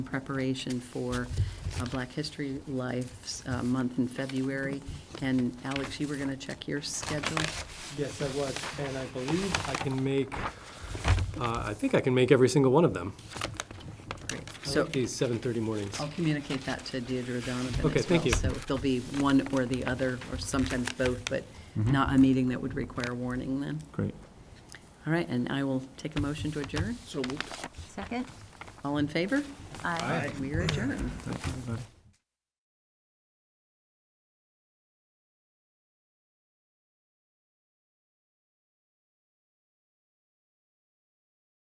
in preparation for uh, Black History Life's uh, month in February. And Alex, you were going to check your schedule? Yes, I was, and I believe I can make, uh, I think I can make every single one of them. Great. I So like these 7:30 mornings. I'll communicate that to Deirdre Donovan as well. Okay, thank you. So if there'll be one or the other, or sometimes both, but not a meeting that would require warning then. Great. All right, and I will take a motion to adjourn. So moved. Second? All in favor? Aye. We are adjourned. Thank you, everybody.